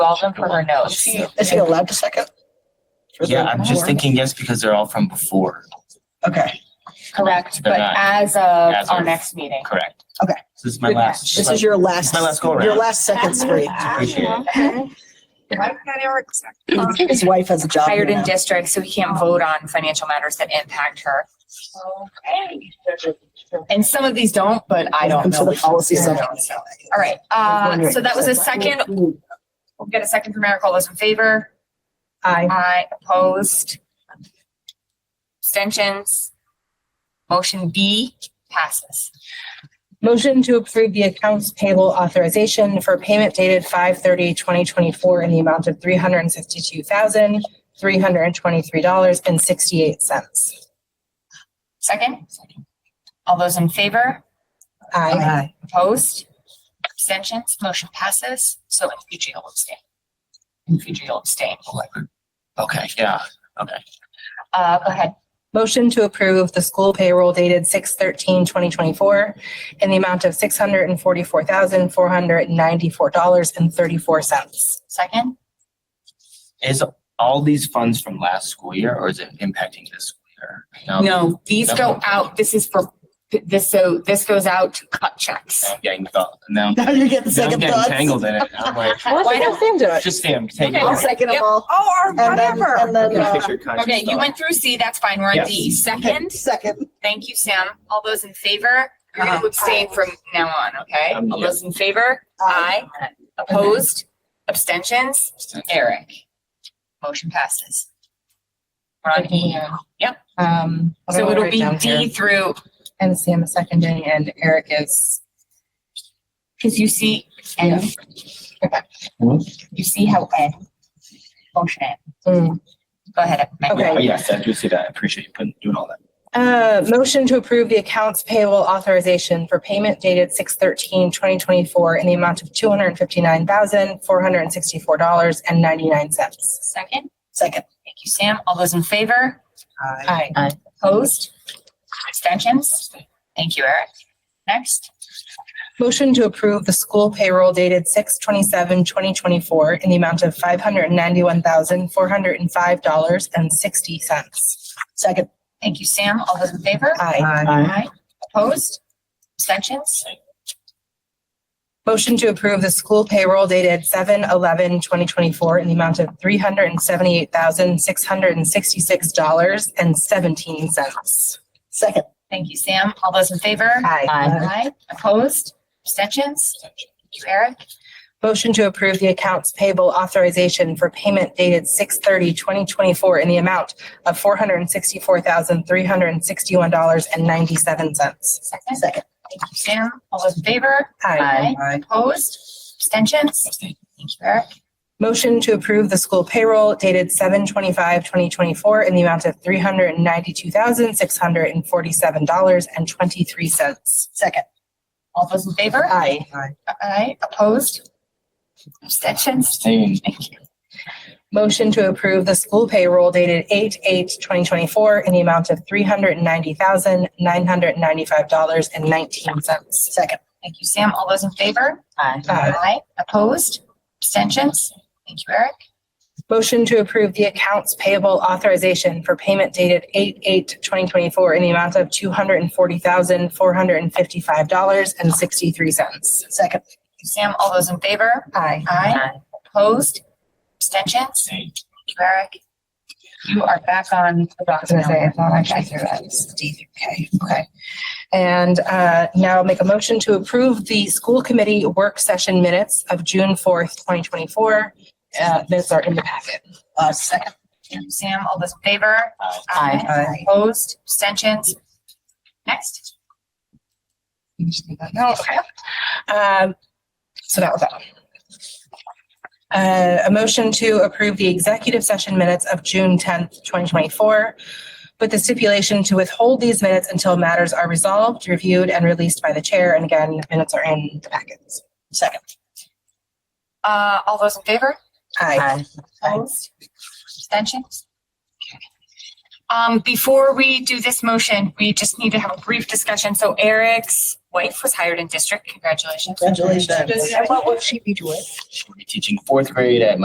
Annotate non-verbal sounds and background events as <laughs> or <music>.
Baldwin for her Is notes. she, is she allowed to second? For the Yeah, I'm just board? thinking yes because they're all from before. Okay, Correct, They're but not- as of As our of- next meeting. Correct. Okay. This is my last. this is your last, my last go your around. last second spree. Appreciate it. His wife has a job. Um, Hired here in now. district, so we can't vote on financial matters that impact her. And some of these don't, but I don't Welcome to know. the policy center. All right, uh, so that was a second. We'll get a second from Eric. All those in favor? Aye. Aye, opposed. Abstentions. Motion B passes. Motion to approve the accounts payable authorization for payment dated 5/30/2024 in the amount of three hundred and sixty-two thousand, three hundred and twenty-three dollars and sixty-eight cents. Second? All those in favor? Aye. Aye. Opposed? Abstentions? Motion passes. So in future, you'll abstain. In future, you'll abstain. Okay, yeah, okay. Uh, go ahead. Motion to approve the school payroll dated 6/13/2024 in the amount of six hundred and forty-four thousand, four hundred and ninety-four dollars and thirty-four cents. Second? Is all these funds from last school year or is it impacting this school year? No, these go Definitely. out. This is for, this, so this goes out to cut checks. I'm getting thought, now <laughs> Now you're getting now I'm second getting thoughts. tangled in it. I'm like, Why don't- just Sam, take Okay. I'll it. second them Yep. all. Oh, or And then, and then, uh, Okay, you went through C, that's fine. We're on Yes. D. Second? second. Thank you, Sam. All those in favor? You're going to abstain from now on, okay? Um, All yeah. those in favor? uh, Aye. Opposed? Abstentions? Eric. Motion passes. We're on E. Yep. Um. So I'll it'll write be down D here. through, And Sam is seconding and Eric is because you see N. Hmm? You see how N. Motion N. Mm. Go ahead. Megan. Okay. Yes, I do see that. I appreciate you putting, doing all that. Uh, motion to approve the accounts payable authorization for payment dated 6/13/2024 in the amount of two hundred and fifty-nine thousand, four hundred and sixty-four dollars and ninety-nine cents. Second? Second. Thank you, Sam. All those in favor? Aye. Opposed? Abstentions? Thank you, Eric. Next, Motion to approve the school payroll dated 6/27/2024 in the amount of five hundred and ninety-one thousand, four hundred and five dollars and sixty cents. Second. thank you, Sam. All those in favor? Aye. Aye. Opposed? Abstentions? Motion to approve the school payroll dated 7/11/2024 in the amount of three hundred and seventy-eight thousand, six hundred and sixty-six dollars and seventeen cents. Second. Thank you, Sam. All those in favor? Aye. Aye. Opposed? Abstentions? Thank you, Eric. Motion to approve the accounts payable authorization for payment dated 2024 in the amount of four hundred and sixty-four thousand, three hundred and sixty-one dollars and ninety-seven cents. Second, Second. thank you, Sam. All those in favor? Aye. Opposed? Abstentions? Thank you, Eric. Motion to approve the school payroll dated 2024 in the amount of three hundred and ninety-two thousand, six hundred and forty-seven dollars and twenty-three cents. Second. All those in favor? Aye. Aye. Opposed? Abstentions? Same. Thank you. Motion to approve the school payroll dated 8/8/2024 in the amount of three hundred and ninety thousand, nine hundred and ninety-five dollars and nineteen cents. Second. Thank you, Sam. All those in favor? Aye. Opposed? Abstentions? Thank you, Eric. Motion to approve the accounts payable authorization for payment dated 8/8/2024 in the amount of two hundred and forty thousand, four hundred and fifty-five dollars and sixty-three cents. Second. Thank you, Sam. All those in favor? Aye. Aye. Opposed? Abstentions? Same. Thank you, Eric. You are back on. the I was gonna say, I thought I should do that. It's D through K. Okay. And uh, now make a motion to approve the school committee work session minutes of June fourth, twenty twenty-four. Uh, minutes are in the packet. Uh, second. Thank you, Sam. All those in favor? Aye. Aye. Opposed? Abstentions? Next. You just need that now, Oh, okay. Um, so that was that. one. Uh, a motion to approve the executive session minutes of June tenth, twenty twenty-four with the stipulation to withhold these minutes until matters are resolved, reviewed, and released by the chair. And again, minutes are in the packets. Second. Uh, all those in favor? Aye. Opposed? Abstentions? Okay. Um, before we do this motion, we just need to have a brief discussion. So Eric's wife was hired in district. Congratulations. Congratulations. Does- and what will she be doing? She'll be teaching fourth grade at